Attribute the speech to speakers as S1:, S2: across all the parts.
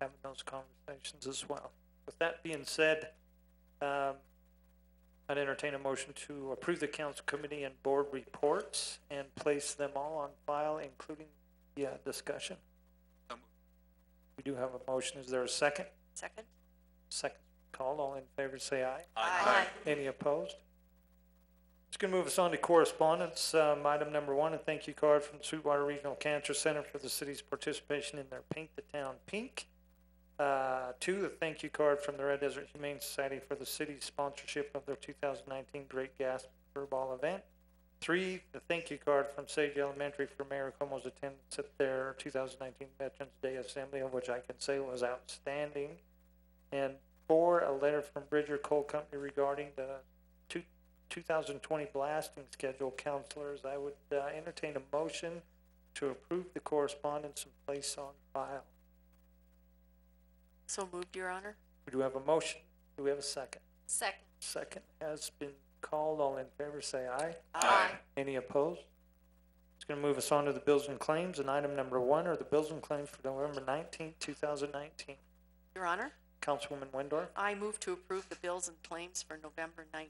S1: having those conversations as well. With that being said, um, I'd entertain a motion to approve the council committee and board reports and place them all on file, including the uh, discussion.
S2: So moved.
S1: We do have a motion. Is there a second?
S3: Second?
S1: Second called. All in favor, say aye.
S3: Aye.
S1: Any opposed? It's gonna move us on to correspondence, um, item number one, a thank you card from Sweetwater Regional Cancer Center for the city's participation in their Paint the Town Pink. Uh, two, a thank you card from the Red Desert Humane Society for the city's sponsorship of their two thousand nineteen Great Gas Furball event. Three, the thank you card from Sage Elementary for Mayor Como's attendance at their two thousand nineteen Veterans Day Assembly, of which I can say was outstanding. And four, a letter from Bridger Coal Company regarding the two, two thousand twenty blasting schedule. Counselors, I would uh, entertain a motion to approve the correspondence and place on file.
S3: So moved, Your Honor.
S1: We do have a motion. Do we have a second?
S3: Second.
S1: Second has been called. All in favor, say aye.
S2: Aye.
S1: Any opposed? It's gonna move us on to the bills and claims, and item number one are the bills and claims for November nineteenth, two thousand nineteen.
S3: Your Honor,
S1: Councilwoman Wendorf?
S3: I move to approve the bills and claims for November 19,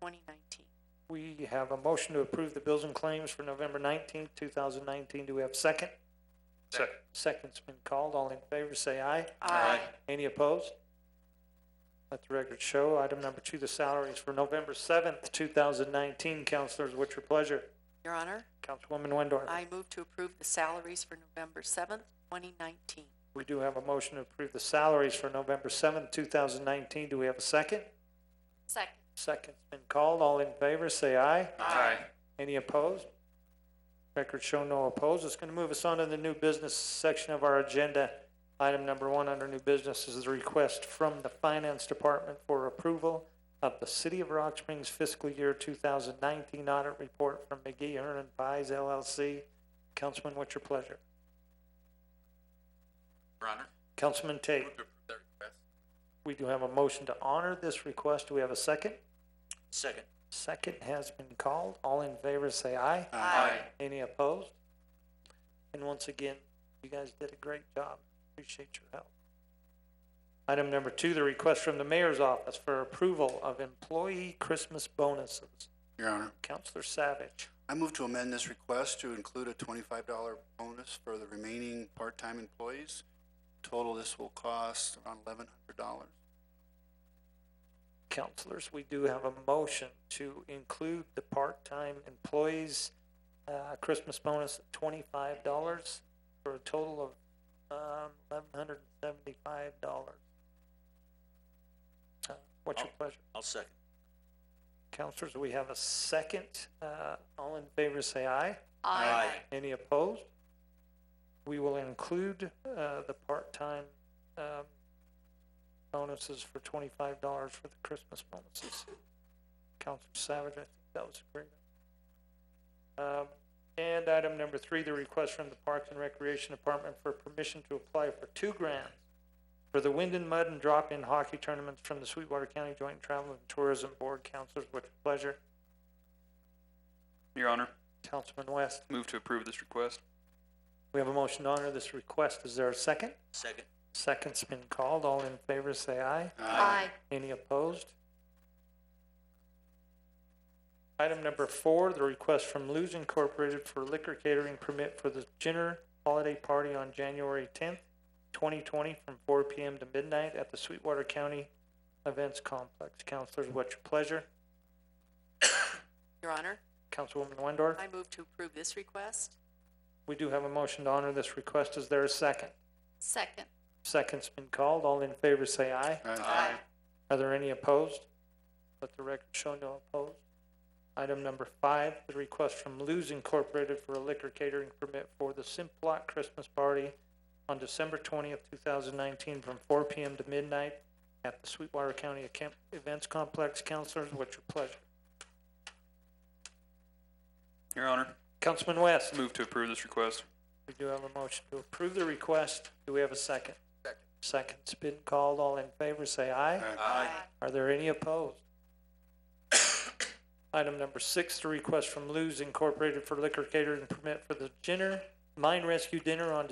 S3: 2019.
S1: We have a motion to approve the bills and claims for November nineteenth, two thousand nineteen. Do we have a second?
S2: Second.
S1: Second's been called. All in favor, say aye.
S2: Aye.
S1: Any opposed? Let the record show. Item number two, the salaries for November seventh, two thousand nineteen. Counselors, what's your pleasure?
S3: Your Honor,
S1: Councilwoman Wendorf?
S3: I move to approve the salaries for November seventh, twenty nineteen.
S1: We do have a motion to approve the salaries for November seventh, two thousand nineteen. Do we have a second?
S3: Second.
S1: Second's been called. All in favor, say aye.
S2: Aye.
S1: Any opposed? Record show no opposed. It's gonna move us on to the new business section of our agenda. Item number one under new business is the request from the Finance Department for approval of the City of Rock Springs fiscal year two thousand nineteen audit report from McGee Hearn and Pies LLC. Councilman, what's your pleasure?
S2: Your Honor,
S1: Councilman
S2: move
S1: Tate,
S2: to approve that request.
S1: we do have a motion to honor this request. Do we have a second?
S2: Second.
S1: Second has been called. All in favor, say aye.
S3: Aye.
S1: Any opposed? And once again, you guys did a great job. Appreciate your help. Item number two, the request from the mayor's office for approval of employee Christmas bonuses.
S4: Your Honor,
S1: Counselor Savage,
S4: I move to amend this request to include a twenty-five dollar bonus for the remaining part-time employees. Total, this will cost around eleven hundred dollars.
S1: counselors, we do have a motion to include the part-time employees, uh, Christmas bonus at twenty-five dollars for a total of, um, eleven hundred and seventy-five dollars. Uh, What's your pleasure?
S2: I'll second.
S1: Counselors, we have a second. Uh, all in favor, say aye.
S2: Aye.
S1: Any opposed? We will include, uh, the part-time, um, bonuses for twenty-five dollars for the Christmas bonuses. Counselor Savage, I think that was agreement. Um, and item number three, the request from the Parks and Recreation Department for permission to apply for two grants for the wind and mud and drop-in hockey tournaments from the Sweetwater County Joint Travel and Tourism Board. Counselors, with pleasure.
S5: Your Honor,
S1: Councilman West,
S5: move to approve this request.
S1: we have a motion to honor this request. Is there a second?
S2: Second.
S1: Second's been called. All in favor, say aye. Any opposed? Item number four, the request from Lou's Incorporated for liquor catering permit for the Jenner Holiday Party on January tenth, twenty twenty, from four PM to midnight at the Sweetwater County Events Complex. Counselors, what's your pleasure?
S3: Your Honor,
S1: Councilwoman Wendorf?
S3: I move to approve this request.
S1: We do have a motion to honor this request. Is there a second?
S3: Second.
S1: Second's been called. All in favor, say aye.
S2: Aye.
S1: Are there any opposed? Let the record show no opposed. Item number five, the request from Lou's Incorporated for a liquor catering permit for the Simplot Christmas Party on December twentieth, two thousand nineteen, from four P M. to midnight at the Sweetwater County Account- Events Complex. Counselors, what's your pleasure?
S5: Your Honor,
S1: Councilman West,
S5: move to approve this request.
S1: we do have a motion to approve the request. Do we have a second?
S2: Second.
S1: Second's been called. All in favor, say aye. Are there any opposed? Item number six, the request from Lou's Incorporated for liquor catering permit for the dinner, mine rescue dinner on